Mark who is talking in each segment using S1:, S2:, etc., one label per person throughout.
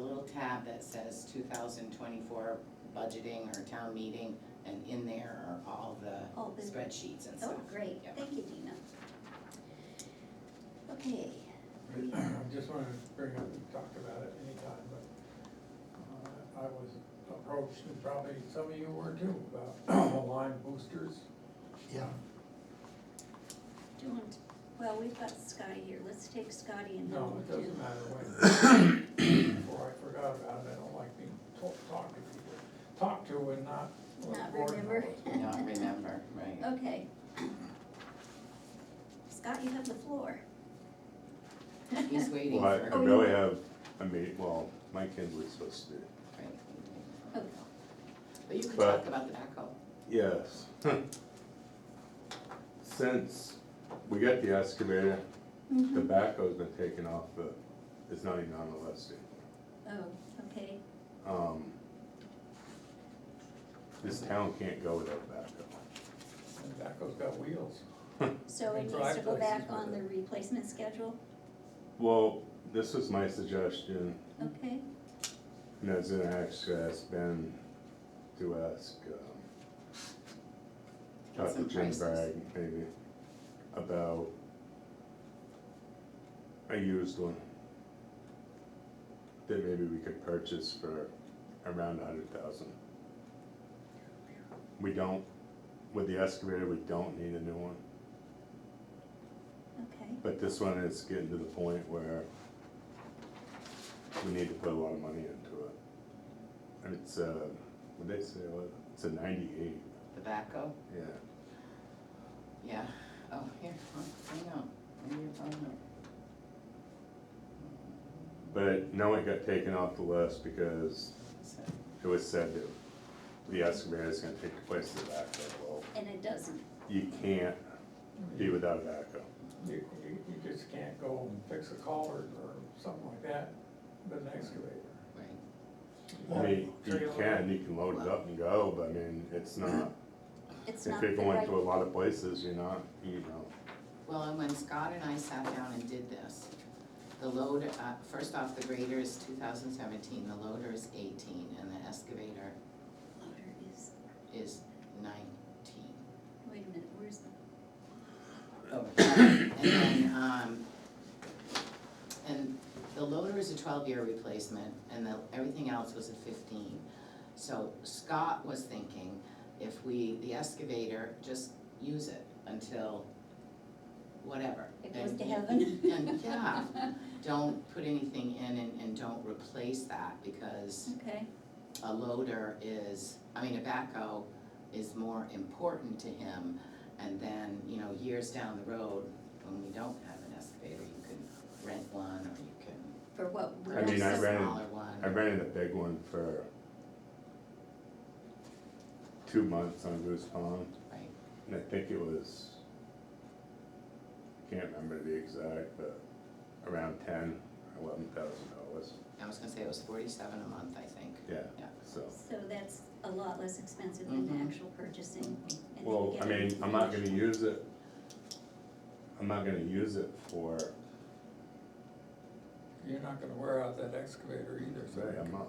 S1: little tab that says two thousand twenty-four budgeting or town meeting, and in there are all the
S2: Oh, the-
S1: spreadsheets and stuff.
S2: oh, great,
S1: Yep.
S2: thank you, Dina. Okay,
S3: I just wanted to bring up, we talked about it anytime, but uh, I was approached, and probably some of you were too, about Lyme boosters.
S4: Yeah,
S2: do you want, well, we've got Scotty here, let's take Scotty and then
S3: No,
S2: we'll
S3: it
S2: do-
S3: doesn't matter when. Before I forgot about it, I don't like being talked to people, talked to and not.
S2: Not
S3: or-
S2: remember.
S1: Not remember, right.
S2: Okay. Scott, you have the floor.
S1: He's waiting
S5: Well, I- I
S2: Oh,
S1: for.
S5: really have, I mean, well, my kids were supposed to do,
S1: Right.
S2: Okay.
S1: But you could
S5: But-
S1: talk about the backhoe.
S5: yes. Since we got the excavator, the
S2: Mhm.
S5: backhoe's been taken off, but it's not even on the list anymore.
S2: Oh, okay,
S5: Um, This town can't go without a backhoe.
S3: And Daco's got wheels.
S2: so it
S3: And
S2: needs to go
S3: driveways
S2: back
S3: is
S2: on the
S3: better.
S2: replacement schedule,
S5: Well, this was my suggestion,
S2: okay?
S5: and I was gonna actually ask Ben to ask, um,
S1: Get
S5: Dr.
S1: some
S5: Jim
S1: prices.
S5: Bragg, maybe, about a used one that maybe we could purchase for around a hundred thousand. We don't, with the excavator, we don't need a new one,
S2: Okay,
S5: but this one is getting to the point where we need to put a lot of money into it. And it's, uh, what they say, what, it's a ninety-eight,
S1: The backhoe?
S5: yeah.
S1: Yeah, oh, here, huh, hang on, maybe your phone number.
S5: But no, it got taken off the list because
S1: So,
S5: it was said that the excavator is gonna take the place of the backhoe. Well,
S2: and it doesn't,
S5: you can't be without a backhoe.
S3: You, you, you just can't go and fix a collar or something like that with an excavator.
S1: Right,
S5: I mean, you can, you can load it up and go, but I mean, it's not,
S2: it's not
S5: if
S2: the
S5: you're going
S2: right-
S5: to a lot of places, you're not, you know.
S1: well, and when Scott and I sat down and did this, the load, uh, first off, the grader is two thousand seventeen, the loader is eighteen, and the excavator
S2: Loader is,
S1: is nineteen.
S2: wait a minute, where's the,
S1: And then, um, and the loader is a twelve-year replacement, and the, everything else was a fifteen. So Scott was thinking, if we, the excavator, just use it until whatever.
S2: it goes to
S1: And-
S2: heaven?
S1: And, yeah, don't put anything in and, and don't replace that, because
S2: Okay,
S1: a loader is, I mean, a backhoe is more important to him. And then, you know, years down the road, when we don't have an excavator, you can rent one or you can
S2: for what? we
S5: I mean,
S1: purchase
S5: I
S1: a
S5: ran-
S1: smaller one.
S5: I rented a big one for two months on Goose Pond,
S1: Right,
S5: and I think it was, I can't remember the exact, but around ten, eleven thousand dollars,
S1: I was gonna say it was forty-seven a month, I think.
S5: yeah,
S1: Yeah.
S5: so.
S2: So that's a lot less expensive than the
S1: Mhm.
S2: actual purchasing. and then
S5: Well, I
S2: get it
S5: mean, I'm not gonna
S2: finished.
S5: use it, I'm not gonna use it for,
S3: You're not gonna wear out that excavator either, so.
S5: sorry, I'm not,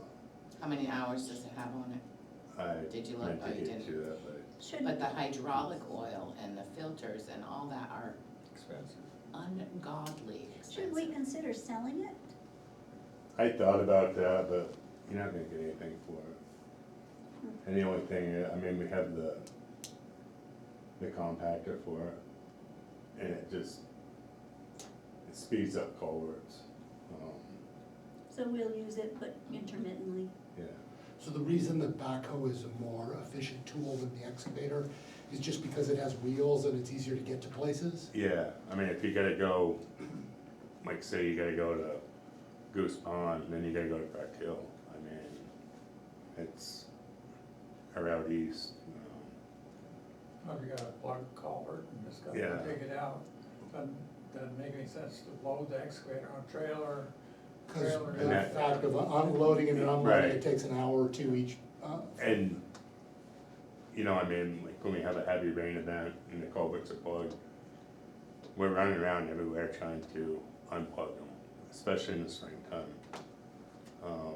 S1: How many hours does it have on it?
S5: I
S1: Did you look?
S5: meant
S1: Oh,
S5: to
S1: you
S5: get
S1: didn't.
S5: to that, but
S1: But
S2: Shouldn't,
S1: the hydraulic oil and the filters and all that are
S3: Expensive.
S1: ungodly expensive.
S2: should we consider selling it?
S5: I thought about that, but you're not gonna get anything for it. And the only thing, I mean, we have the, the compactor for it, and it just, it speeds up culverts, um,
S2: So we'll use it, but intermittently.
S5: yeah.
S4: so the reason the backhoe is a more efficient tool than the excavator is just because it has wheels and it's easier to get to places?
S5: Yeah, I mean, if you gotta go, like, say you gotta go to Goose Pond, then you gotta go to Crack Hill, I mean, it's, or out east, you know.
S3: Oh, you gotta plug a culvert and just gotta
S5: Yeah.
S3: dig it out. Doesn't, doesn't make any sense to load the excavator on a trailer.
S4: Because
S3: Trailer.
S4: the
S5: Yeah.
S4: fact of unloading and unloading,
S5: Right.
S4: it takes an hour or two each, uh,
S5: um, And, you know, I mean, like when we have a heavy rain event and the culverts are plugged, we're running around everywhere trying to unplug them, especially in the springtime. Um,